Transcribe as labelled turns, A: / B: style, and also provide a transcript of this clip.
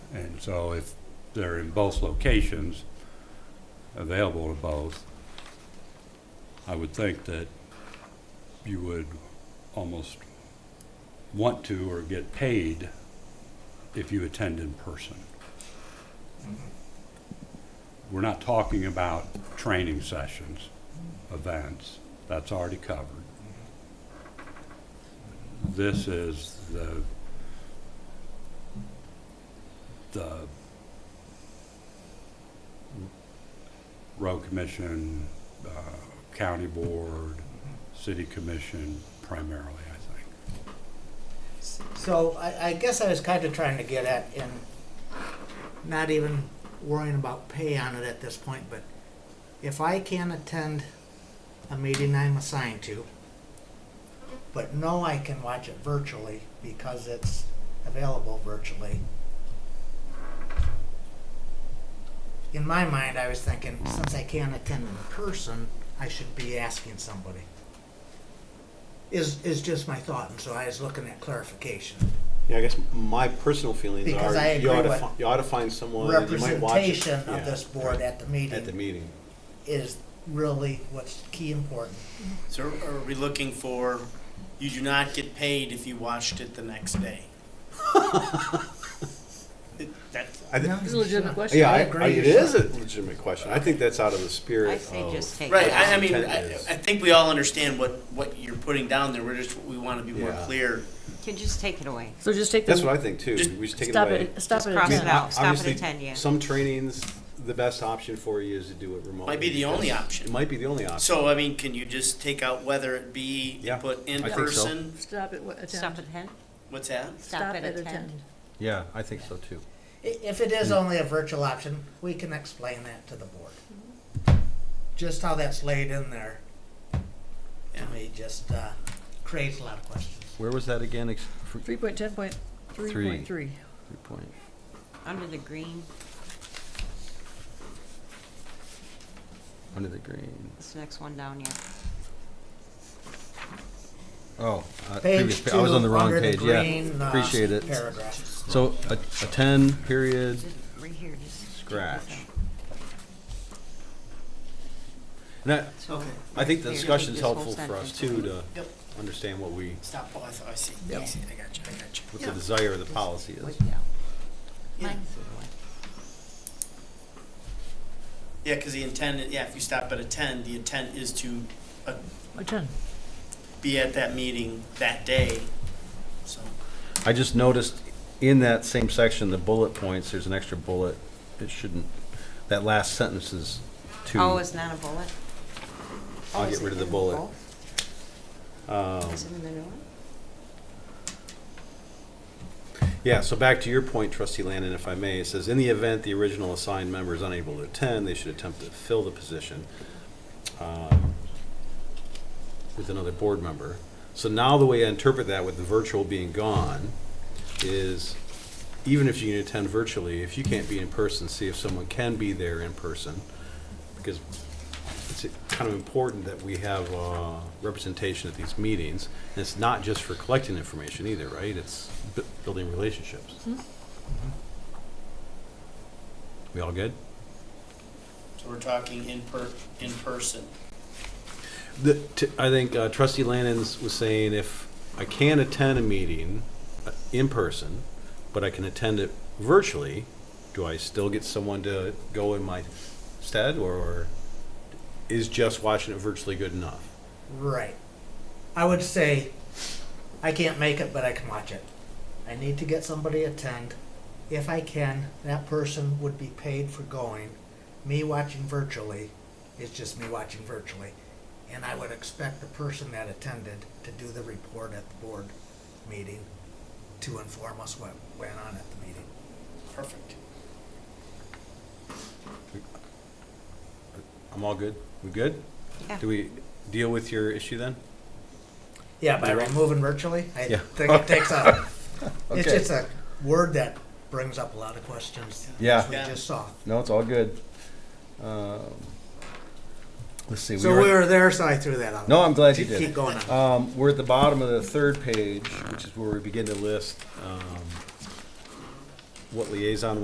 A: So if they're in both locations, available to both, I would think that you would almost want to or get paid if you attend in person. We're not talking about training sessions, events, that's already covered. This is the, the road commission, uh, county board, city commission primarily, I think.
B: So I, I guess I was kind of trying to get at in not even worrying about pay on it at this point, but if I can attend a meeting I'm assigned to, but no, I can watch it virtually because it's available virtually. In my mind, I was thinking, since I can't attend in person, I should be asking somebody is, is just my thought, and so I was looking at clarification.
C: Yeah, I guess my personal feelings
B: Because
C: are
B: I
C: you,
B: agree
C: ought to
B: with
C: fi- you ought to find someone that you might watch it.
B: Representation of
C: Yeah,
B: this board at the
C: at the
B: meeting
C: meeting.
B: is really what's key important.
D: So are we looking for, you do not get paid if you watched it the next day? It- That's,
C: I thi-
B: No,
E: It's a legitimate
B: sure.
E: question.
C: yeah, I,
B: agree,
C: I, it
B: you're
C: is a legitimate question. I think that's out of the spirit.
F: I say
C: of,
F: just take it
D: right, I, I
F: out.
D: mean, I,
C: Intent is-
D: I think we all understand what, what you're putting down there, we're just, we wanna be more
C: Yeah.
D: clear.
F: Can just take it away.
E: So just take the.
C: that's what I think too.
D: Just
C: we just take
E: Stop
C: it away.
E: it, stop
F: Just
E: it. at
F: cross
C: I mean,
F: it
E: 10.
F: out. stop it at
C: obviously,
F: 10, yeah.
C: Some trainings, the best option for you is to do it remotely.
D: Might be the
C: because
D: only option.
C: It might be the only option.
D: So, I mean, can you just take out whether it be,
C: Yeah,
D: put in
C: I think so.
D: person?
E: Stop it, what, attend.
F: Stop at ten?
D: What's that?
F: Stop it at ten.
C: yeah, I think so too.
B: I- If it
C: Hmm.
B: is only a virtual option, we can explain that to the board. Just how that's laid in there,
D: Yeah.
B: to me, just, uh, creates a lot of questions.
G: Where was that again? Ex- fr-
E: Three point ten point, three point three.
G: three point.
F: Under the green,
G: Under the green.
F: this next one down here.
G: Oh, uh,
B: Page
G: previous pa-
B: two,
G: I was on the wrong
B: under the
G: page.
B: green,
G: yeah,
B: uh,
G: appreciate it.
B: paragraph.
G: So a, a ten period.
F: Just right here, just.
G: Scratch. And I,
F: Okay.
C: I think the
F: Here,
C: discussion's
F: this whole
C: helpful for us
F: sentence.
C: too to
D: Yep.
C: understand what we
D: Stop, oh, I thought, I see, I see, I got you, I got you.
C: what the desire of the policy
F: Wipe
C: is.
F: it out.
D: Yeah.
F: Mine.
D: Yeah, cause the intent, yeah, if you stop at a ten, the intent is to uh,
E: Attend.
D: be at that meeting that day, so.
G: I just noticed in that same section, the bullet points. There's an extra bullet. It shouldn't. That last sentence is two.
F: Oh, it's not a bullet?
C: I'll
F: Oh,
C: get
F: is it
C: rid of the
F: in
C: bullet.
F: both?
C: Um,
F: Is it in the new one?
C: Yeah, so back to your point, trustee Landon, if I may, it says, in the event the original assigned member is unable to attend, they should attempt to fill the position um, with another board member. So now the way I interpret that with the virtual being gone is, even if you can attend virtually, if you can't be in person, see if someone can be there in person. Because it's kind of important that we have uh, representation at these meetings. And it's not just for collecting information either, right? It's bu- building relationships. Mm-hmm. We all good?
D: So we're talking in per, in person.
C: The, t- I think uh, trustee Lannon's was saying if I can attend a meeting uh, in person, but I can attend it virtually, do I still get someone to go in my stead or is just watching it virtually good enough?
B: Right. I would say, I can't make it, but I can watch it. I need to get somebody to attend. If I can, that person would be paid for going. Me watching virtually is just me watching virtually. And I would expect the person that attended to do the report at the board meeting to inform us what went on at the meeting.
D: Perfect.
C: I'm all good? We good?
F: Yeah.
C: Do we deal with your issue then?
B: Yeah, by
C: Yeah.
B: removing virtually, I
C: Yeah.
B: think it takes a, it's
G: Okay.
B: just a word that brings up a lot of questions.
G: Yeah.
B: As we
D: Yeah.
B: just saw.
G: No, it's all good. Um, let's see.
B: So we were there, so I threw that out.
G: No, I'm glad you
B: Keep-
G: did.
B: Keep going on.
G: Um, we're at the bottom of the third page, which is where we begin to list um, what liaison